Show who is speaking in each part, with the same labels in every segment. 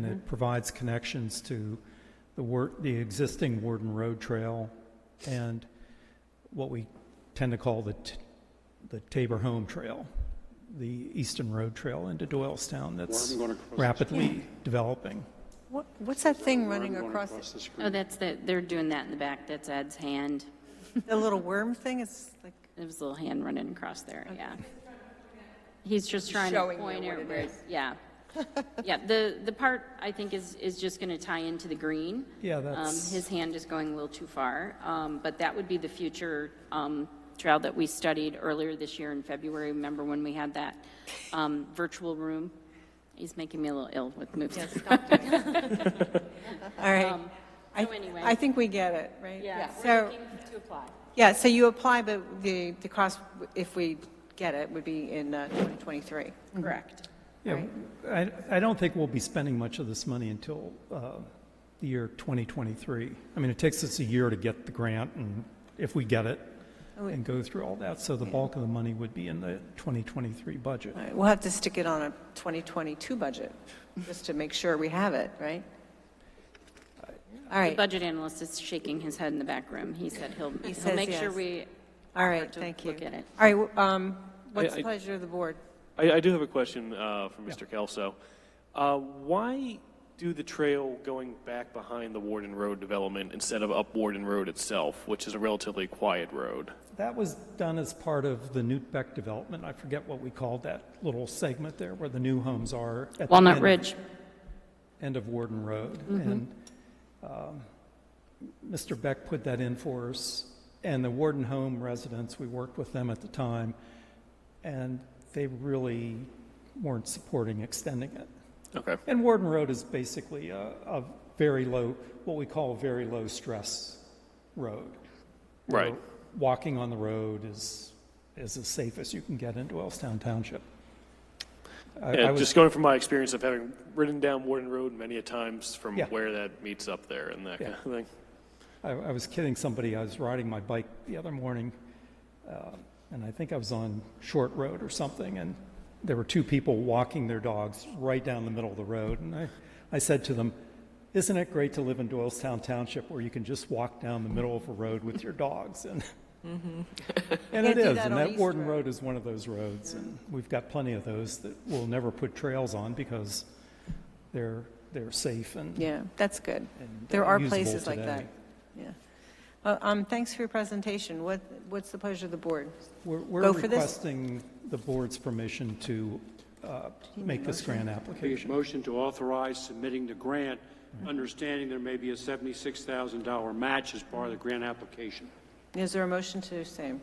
Speaker 1: Mm-hmm.
Speaker 2: provides connections to the wor, the existing Warden Road Trail and what we tend to call the, t- the Tabor Home Trail, the Eastern Road Trail into Doylestown that's
Speaker 3: Where I'm going across.
Speaker 2: rapidly developing.
Speaker 4: What, what's that thing
Speaker 3: where I'm
Speaker 4: running
Speaker 3: going
Speaker 4: across,
Speaker 3: the
Speaker 1: Oh,
Speaker 3: screen.
Speaker 1: that's the, they're doing that in the back. That's Ed's hand.
Speaker 4: it? the little worm thing? It's like,
Speaker 1: There was a little hand running across there, yeah. He's just trying to
Speaker 5: showing you
Speaker 1: point
Speaker 5: what
Speaker 1: at
Speaker 5: it
Speaker 1: where, it- yeah. Yeah, the, the part, I think, is, is just going to tie into the green.
Speaker 2: Yeah,
Speaker 1: Um,
Speaker 2: that's-
Speaker 1: His hand is going a little too far, um, but that would be the future um, trail that we studied earlier this year in February. Remember when we had that um, virtual room? He's making me a little ill with moves.
Speaker 4: all right. I-
Speaker 1: so anyway.
Speaker 4: I think we get it, right?
Speaker 1: We're
Speaker 4: So,
Speaker 1: looking to apply.
Speaker 4: yeah, so you apply, but the, the cost, if we get it, would be in uh, 2023.
Speaker 1: Correct.
Speaker 2: Yeah, I, I don't think we'll be spending much of this money until uh, the year 2023. I mean, it takes us a year to get the grant, and if we get it, and go through all that, so the bulk of the money would be in the 2023 budget.
Speaker 4: All right, We'll have to stick it on a 2022 budget, just to make sure we have it, right? All
Speaker 1: The
Speaker 4: right,
Speaker 1: budget analyst is shaking his head in the back room. He said he'll, he'll
Speaker 4: says
Speaker 1: make sure
Speaker 4: yes.
Speaker 1: we
Speaker 4: all right,
Speaker 1: to
Speaker 4: thank you.
Speaker 1: look at it.
Speaker 4: All right, w- um, what's
Speaker 6: I-
Speaker 4: the
Speaker 6: I-
Speaker 4: pleasure of the board?
Speaker 6: I, I do have a question uh, for Mr. Kelso. Uh, why do the trail going back behind the Warden Road development instead of up Warden Road itself, which is a relatively quiet road?
Speaker 2: That was done as part of the Newt Beck development. I forget what we called that little segment there where the new homes are. at the
Speaker 1: Walnut
Speaker 2: end of-
Speaker 1: Ridge.
Speaker 2: End of Warden Road.
Speaker 6: Mm-hmm.
Speaker 2: And um, Mr. Beck put that in for us. And the Warden Home residents, we worked with them at the time, and they really weren't supporting extending it.
Speaker 6: Okay.
Speaker 2: And Warden Road is basically a, a very low, what we call a very low stress road. where
Speaker 6: Right.
Speaker 2: Walking on the road is, is as safe as you can get into Wellstown Township. I- I
Speaker 6: Yeah,
Speaker 2: was-
Speaker 6: just going from my experience of having ridden down Warden Road many a times from
Speaker 2: Yeah.
Speaker 6: where that meets up there and that kind of thing.
Speaker 2: I, I was kidding somebody. I was riding my bike the other morning, uh, and I think I was on Short Road or something, and there were two people walking their dogs right down the middle of the road. And I, I said to them, Isn't it great to live in Doylestown Township where you can just walk down the middle of a road with your dogs? And, and
Speaker 4: Yeah,
Speaker 2: it
Speaker 4: Mm-hmm. do
Speaker 2: is.
Speaker 4: that
Speaker 2: and
Speaker 4: on
Speaker 2: that
Speaker 4: East
Speaker 2: Warden
Speaker 4: Road.
Speaker 2: Road is one of those roads, and we've got plenty of those that we'll never put trails on because they're, they're safe and
Speaker 4: Yeah, that's good.
Speaker 2: And
Speaker 4: There are
Speaker 2: usable
Speaker 4: places like that.
Speaker 2: today.
Speaker 4: Yeah. Well, um, thanks for your presentation. What, what's the pleasure of the board?
Speaker 2: We're- We're
Speaker 4: Go for this.
Speaker 2: requesting the board's permission to uh, make this grant
Speaker 3: Be
Speaker 2: application.
Speaker 3: a motion to authorize submitting the grant, understanding there may be a $76,000 match as part of the grant application.
Speaker 4: Is there a motion to do same?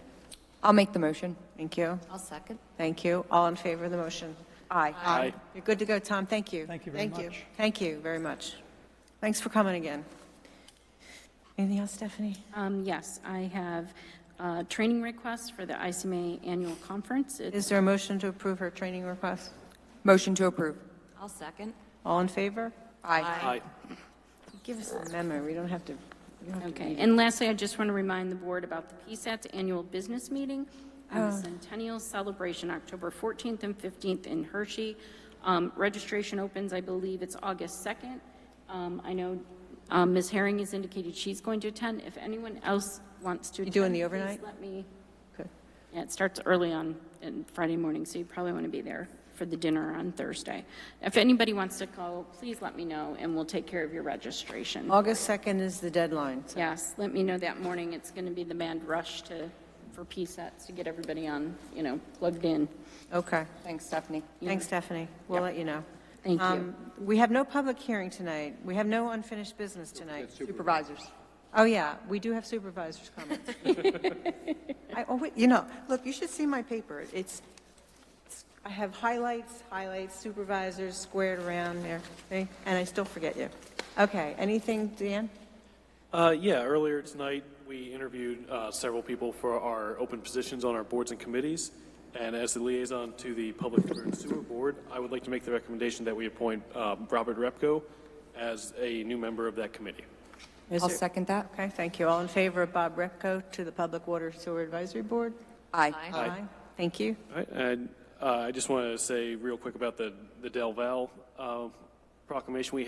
Speaker 5: I'll make the motion.
Speaker 4: Thank you.
Speaker 5: I'll second.
Speaker 4: Thank you. All in favor of the motion? Aye.
Speaker 6: Aye.
Speaker 4: You're good to go, Tom. Thank you.
Speaker 2: Thank you very
Speaker 4: Thank
Speaker 2: much.
Speaker 4: Thank you very much. Thanks for coming again. Anything else, Stephanie?
Speaker 1: Um, yes, I have, uh, training requests for the ICMA annual conference. It's
Speaker 4: Is there a motion to approve her training request?
Speaker 5: Motion to approve. I'll second.
Speaker 4: All in favor? Aye.
Speaker 6: Aye.
Speaker 4: Give us a memo. We don't have to, we don't have to
Speaker 1: Okay, and lastly, I just want to remind the board about the PSAT's annual business meeting and
Speaker 4: Oh.
Speaker 1: the Centennial Celebration, October 14th and 15th in Hershey. Um, Registration opens, I believe it's August 2nd. Um, I know um, Ms. Herring has indicated she's going to attend. If anyone else wants to attend,
Speaker 4: doing the
Speaker 1: please
Speaker 4: overnight?
Speaker 1: let me,
Speaker 4: Good.
Speaker 1: yeah, it starts early on in Friday morning, so you probably want to be there for the dinner on Thursday. If anybody wants to go, please let me know, and we'll take care of your registration.
Speaker 4: August 2nd is the deadline. so-
Speaker 1: Yes, let me know that morning. It's going to be the mad rush to, for PSATs to get everybody on, you know, plugged in.
Speaker 4: Okay.
Speaker 5: Thanks, Stephanie.
Speaker 4: Thanks, Stephanie. We'll let you know.
Speaker 1: Thank you.
Speaker 4: Um, We have no public hearing tonight. We have no unfinished business tonight.
Speaker 5: Supervisors.
Speaker 4: Oh, yeah, we do have supervisors' comments. I always, you know, look, you should see my paper. It's, it's- I have highlights, highlights, supervisors squared around there, see? and I still forget you. Okay, anything, Dan?
Speaker 6: Uh, yeah, earlier tonight, we interviewed uh, several people for our open positions on our boards and committees. And as the liaison to the Public Water and Sewer Board, I would like to make the recommendation that we appoint um, Robert Repko as a new member of that committee.
Speaker 4: Is
Speaker 5: I'll
Speaker 4: there-
Speaker 5: second that.
Speaker 4: Okay, thank you. All in favor of Bob Repko to the Public Water Sewer Advisory Board?
Speaker 5: Aye.
Speaker 4: Aye. Thank you.
Speaker 6: All right, and uh, I just want to say real quick about the the Del Val uh, proclamation we had.